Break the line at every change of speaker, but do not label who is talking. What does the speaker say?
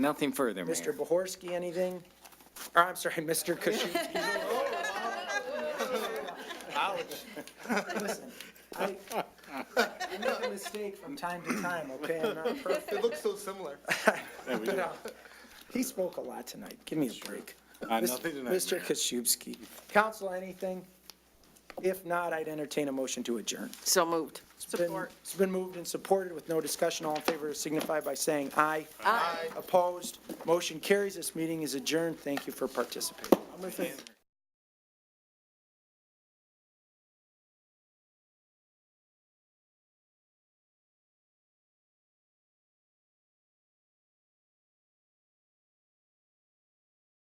Nothing further, Mayor.
Mr. Bohorsky, anything? Or I'm sorry, Mr. Kuschinski. Listen, I, I make a mistake from time to time, okay? I'm not perfect.
It looks so similar.
He spoke a lot tonight. Give me a break.
Uh,
Mis-
nothing tonight,
Mr.
Mayor.
Kuschinski. Council, anything? If not, I'd entertain a motion to adjourn.
So moved.
It's been- It's been moved and supported with no discussion. All in favor signify by saying aye. Aye. Opposed? Motion carries. This meeting is adjourned. Thank you for participating.